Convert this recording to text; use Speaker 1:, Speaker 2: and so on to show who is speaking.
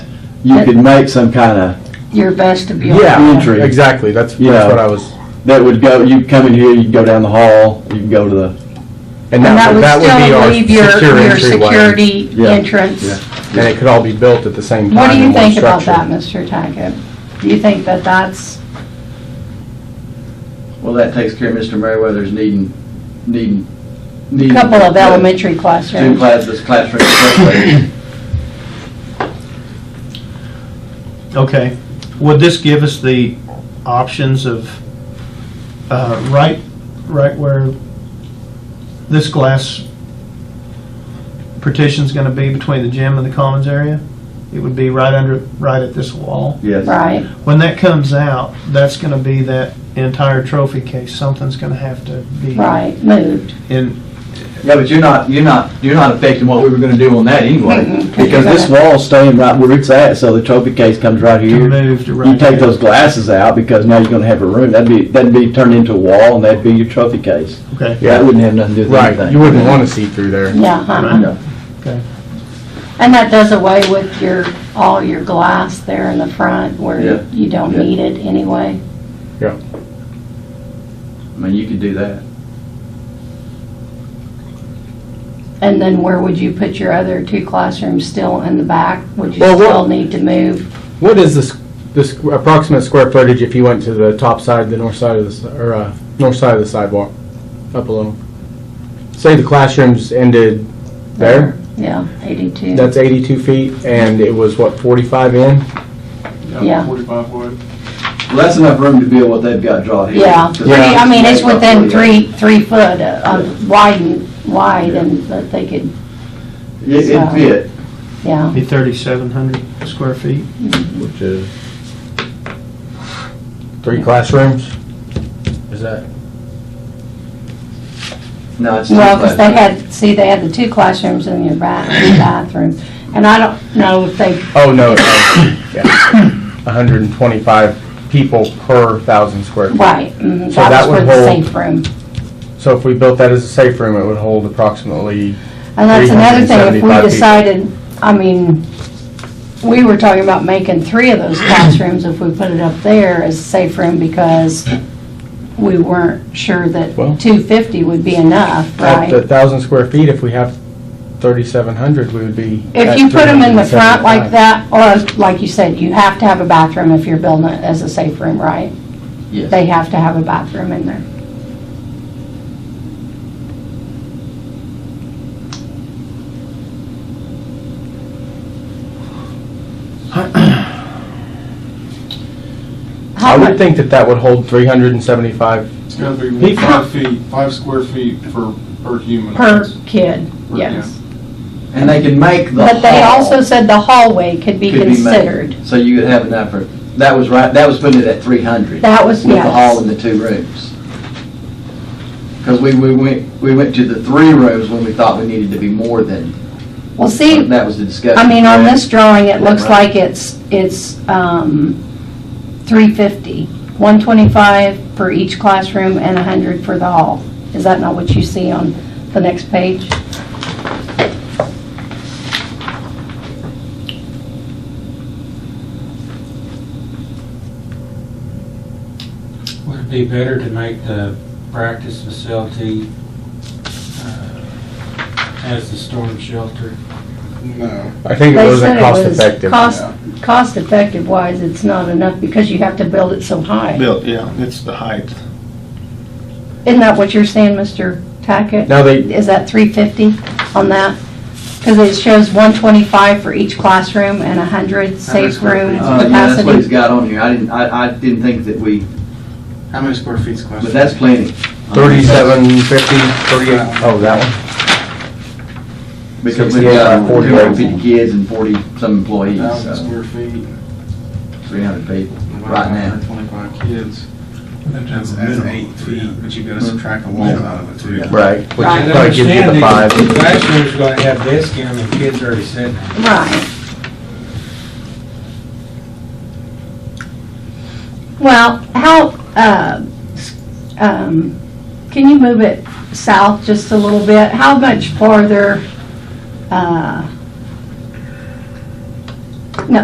Speaker 1: you could make some kind of,
Speaker 2: your vestibule.
Speaker 1: Yeah. Entry.
Speaker 3: Exactly, that's,
Speaker 1: Yeah.
Speaker 3: that's what I was,
Speaker 1: that would go, you come in here, you can go down the hall, you can go to the,
Speaker 2: And
Speaker 3: and that would, that would be
Speaker 2: still
Speaker 3: our
Speaker 2: leave your,
Speaker 3: secure
Speaker 2: your
Speaker 3: entryway.
Speaker 2: security
Speaker 1: Yeah, yeah.
Speaker 2: entrance.
Speaker 3: And it could all be built at the same
Speaker 2: What do
Speaker 3: time
Speaker 2: you
Speaker 3: in one
Speaker 2: think about that,
Speaker 3: structure.
Speaker 2: Mr. Tackett? Do you think that that's,
Speaker 4: Well, that takes care of Mr. Merriweather's needing, needing,
Speaker 2: a
Speaker 4: needing.
Speaker 2: couple of
Speaker 4: Yeah.
Speaker 2: elementary
Speaker 4: Two
Speaker 2: classrooms?
Speaker 4: classes, classroom, separate.
Speaker 5: Okay, would this give us the options of, uh, right, right where this glass partition's gonna be between the gym and the commons area? It would be right under, right at this wall.
Speaker 1: yes.
Speaker 2: Right,
Speaker 5: When that comes out, that's gonna be that entire trophy case, something's gonna have to be.
Speaker 2: right, moved.
Speaker 5: In,
Speaker 4: Yeah, but you're not, you're not, you're not affecting what we were gonna do on that anyway.
Speaker 2: Mhm,
Speaker 1: Because this wall's staying right where it's at, so the trophy case comes right
Speaker 5: to
Speaker 1: here.
Speaker 5: move to right.
Speaker 1: You take
Speaker 5: there.
Speaker 1: those glasses out, because now you're gonna have a room, that'd be, that'd be turned into a wall, and that'd be your trophy case.
Speaker 5: Okay.
Speaker 1: That wouldn't have nothing to do with anything.
Speaker 3: Right, you wouldn't want to see through there.
Speaker 2: Yeah, uh-huh.
Speaker 1: No.
Speaker 5: Okay.
Speaker 2: And that does away with your, all your glass there in the front
Speaker 4: Yeah,
Speaker 2: where you don't
Speaker 4: yeah.
Speaker 2: need it anyway.
Speaker 4: I mean, you could do that.
Speaker 2: And then where would you put your other two classrooms still in the back? Would you
Speaker 3: Well, what-
Speaker 2: still need to move?
Speaker 3: What is this, this approximate square footage if you went to the top side, the north side of the, s- or, uh, north side of the sidewalk, up a little? Say the classrooms ended there,
Speaker 2: Yeah, 82.
Speaker 3: that's eighty-two feet, and it was what, forty-five in?
Speaker 2: Yeah.
Speaker 1: Well, that's enough room to build what they've got drawn here.
Speaker 2: Yeah,
Speaker 1: Because
Speaker 2: pretty, I mean, it's
Speaker 1: that's
Speaker 2: within
Speaker 1: about
Speaker 2: three, three foot of wide, and- wide, and that they could,
Speaker 1: It, it'd fit.
Speaker 2: yeah,
Speaker 5: Be thirty-seven hundred square feet.
Speaker 3: Which is? Three classrooms? Is that?
Speaker 4: No, it's two
Speaker 2: well, because they
Speaker 4: classes.
Speaker 2: had, see, they had the two classrooms and your ba- and the bathroom, and I don't know if they,
Speaker 3: Oh, no, hundred and twenty-five people per thousand square feet.
Speaker 2: right, mhm,
Speaker 3: So that
Speaker 2: that was for
Speaker 3: would
Speaker 2: the
Speaker 3: hold-
Speaker 2: safe room.
Speaker 3: So if we built that as a safe room, it would hold approximately
Speaker 2: And that's another thing, if
Speaker 3: 375 people.
Speaker 2: we decided, I mean, we were talking about making three of those classrooms if we put it up there as a safe room because we weren't sure that
Speaker 3: Well-
Speaker 2: 250 would be enough,
Speaker 3: At
Speaker 2: right?
Speaker 3: the thousand square feet, if we have thirty-seven hundred, we would be.
Speaker 2: If
Speaker 3: at
Speaker 2: you put them in the front
Speaker 3: 375.
Speaker 2: like that, or like you said, you have to have a bathroom if you're building it as a safe room, right?
Speaker 4: Yes.
Speaker 2: They have to have a bathroom in there.
Speaker 3: I
Speaker 2: How
Speaker 3: would
Speaker 2: much,
Speaker 3: think that that would hold three hundred and seventy-five,
Speaker 6: It's gotta be five feet, five square feet per, per human.
Speaker 2: per kid, yes.
Speaker 4: And they can make the
Speaker 2: But they
Speaker 4: hall
Speaker 2: also said the hallway could be
Speaker 4: could made.
Speaker 2: considered.
Speaker 4: So you could have enough for, that was right, that was putting it at three hundred.
Speaker 2: That was,
Speaker 4: With the hall
Speaker 2: yes.
Speaker 4: and the two rooms. Because we, we went, we went to the three rooms when we thought we needed to be more than, uh,
Speaker 2: Well, see,
Speaker 4: that was the discussion.
Speaker 2: I mean, on
Speaker 4: correct?
Speaker 2: this drawing, it looks
Speaker 4: Right.
Speaker 2: like it's, it's um, 350, 125 for each classroom and 100 for the hall. Is that not what you see on the next page?
Speaker 7: Would it be better to make the practice facility uh, as the storm shelter?
Speaker 6: No.
Speaker 3: I think it
Speaker 2: They
Speaker 3: wasn't
Speaker 2: said it
Speaker 3: cost
Speaker 2: was
Speaker 3: effective.
Speaker 2: Cost, cost effective wise, it's not enough because you have to build it so high.
Speaker 6: Built, yeah, it's the height.
Speaker 2: Isn't that what you're saying, Mr. Tackett?
Speaker 3: Now they,
Speaker 2: Is that 350 on that? Because it shows 125 for each classroom and 100 safe
Speaker 6: square
Speaker 2: room
Speaker 6: feet.
Speaker 4: Uh, yeah, that's what he's
Speaker 2: capacity.
Speaker 4: got on here. I didn't, I, I didn't think that we,
Speaker 6: How many square feet's classroom?
Speaker 4: but that's plenty.
Speaker 3: thirty-seven fifty, thirty-eight, oh, that one?
Speaker 4: Because we've got 250 kids and 40-some employees,
Speaker 6: Thousand
Speaker 4: so
Speaker 6: square feet.
Speaker 4: 300 people right now.
Speaker 6: Twenty-five kids. That's eight feet, but you
Speaker 4: Hmm.
Speaker 6: gotta subtract the walls out of it too.
Speaker 3: Right, which
Speaker 2: Right.
Speaker 3: probably gives you the five.
Speaker 7: Understand that the Classroom's gonna have desk in them and kids already sitting.
Speaker 2: Right. Well, how, uh, s- um, can you move it south just a little bit? How much farther uh,